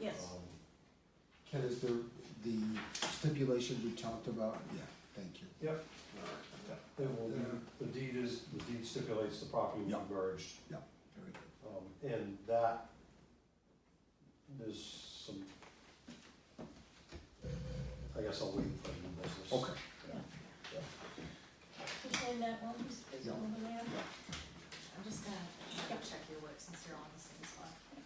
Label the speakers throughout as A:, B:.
A: Yes,
B: Um, Ken, is there the stipulation we talked about? Yeah, thank you.
C: Yep.
B: Alright,
C: It will be, the deed is, the deed stipulates the property will
B: Yeah.
C: be merged,
B: very good.
C: um, and that, there's some, I guess I'll wait for the business.
B: Okay,
A: between that one, is is
B: Yeah.
A: over there.
D: I'm just gonna check your work since you're on the same spot. And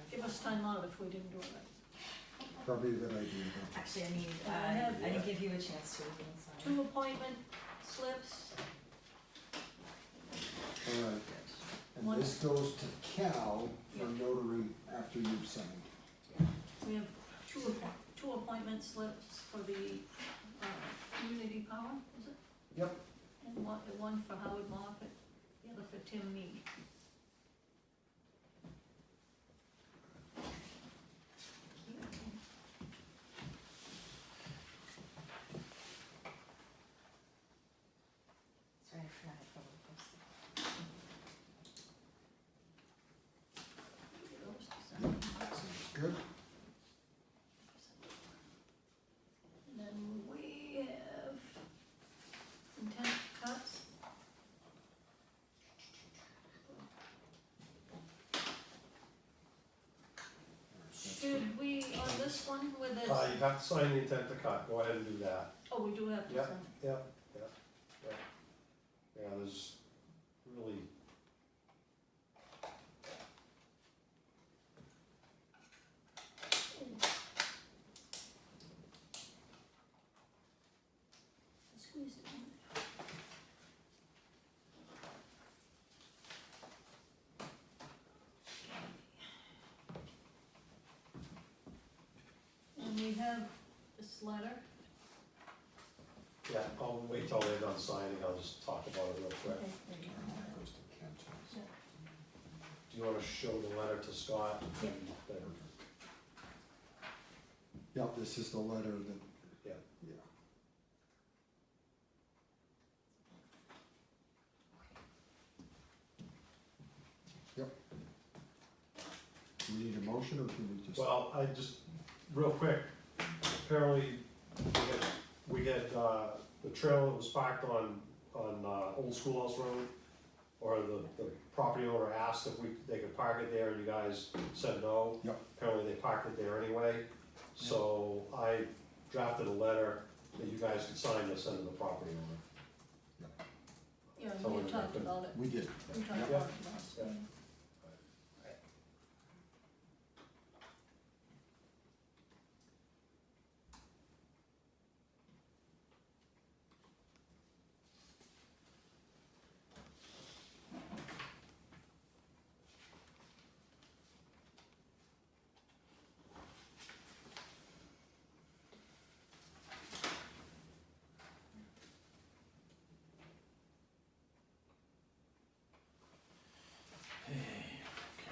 D: I-
A: Give us time out if we didn't do it right.
B: probably a good idea. though.
D: Actually, I need, uh,
A: I have-
D: I didn't give you a chance to, even sign.
A: Two appointment slips,
B: Alright,
A: One-
B: and this goes to Cal for notary after you've signed.
A: we have two, appoint- two appointment slips for the, uh, community power, is it?
B: Yep.
A: And one, the one for Howard Moffett, the other for Tim Mead.
D: Sorry, I forgot I probably posted.
A: Those to sign.
B: Sounds good.
A: And then we have intent cuts. Should we, on this one with this,
C: Uh, you have to sign the intent to cut, go ahead and do that.
A: oh, we do have to
C: Yeah.
A: sign.
C: Yep, yep, yep. Yeah, there's really.
A: Squeeze it in. And we have this letter,
C: Yeah, I'll wait till they're done signing, I'll just talk about it real quick.
A: okay, there you
B: And
A: go.
B: that goes to Ken, so
C: Do you wanna show the letter to Scott?
A: Yeah.
C: Then-
B: it's- Yep, this is the letter that.
C: Yeah.
B: Yeah. Yep. Do we need a motion or can we just?
C: Well, I just, real quick, apparently, we had, we had, uh, the trailer that was parked on, on, uh, Old Schoolhouse Road, or the, the property owner asked if we, they could park it there, and you guys said no.
B: Yep.
C: Apparently, they parked it there anyway, so I drafted a letter that you guys could sign to send to the property owner.
A: Yeah,
C: Totally
A: we talked
C: different.
A: about it,
B: We did.
A: we talked
C: Yeah.
A: about it last
C: Yeah.
A: time.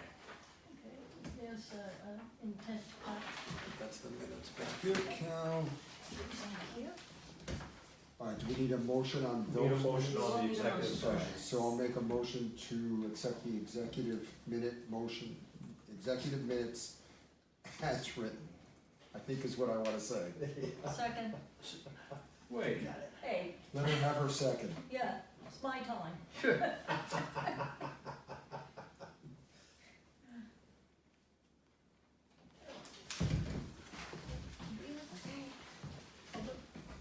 A: Okay, There's a, a intent part,
B: That's the minutes back here, Cal.
A: it's on here.
B: All right, do we need a motion on those?
C: Need a motion
D: We'll
C: on the
D: need a
C: executive
D: motion.
C: session.
B: Alright, So I'll make a motion to accept the executive minute motion, executive minutes as written, I think is what I wanna say.
A: Second,
E: Wait,
A: hey,
B: Let her have her second.
A: yeah, it's my time.
D: Okay.
A: I don't-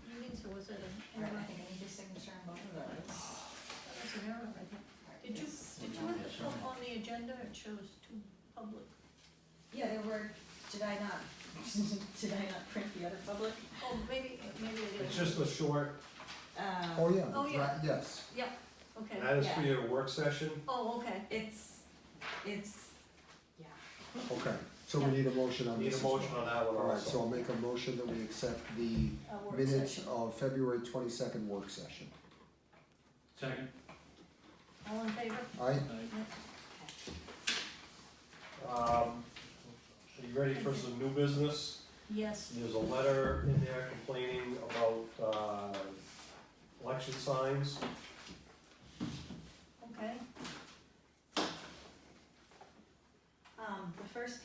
A: You mean, so was it an
D: All right,
A: error?
D: I think I need your signature on both of those.
A: That was an error, I think. Did you,
D: Yes.
A: did you look on the agenda, it shows two public,
D: Yeah, there were, did I not, did I not print the other public?
A: oh, maybe, maybe it
C: It's
A: is.
C: just a short,
D: Um,
B: Oh, yeah,
A: Oh,
B: that's
A: yeah.
B: right, yes.
A: Okay,
C: that is for your work session,
A: oh, okay,
D: It's, it's, yeah.
B: Okay, so we need a motion on
C: need
B: this
C: a
B: as well.
C: motion on that one also.
B: Alright, so I'll make a motion that we accept the
A: a work
B: minutes
A: session.
B: of February twenty-second work session.
E: second,
A: All in favor?
B: Aye,
E: I-
C: Um, are you ready for some new business?
A: Yes,
C: There's a letter in there complaining about, uh, election signs.
D: Um,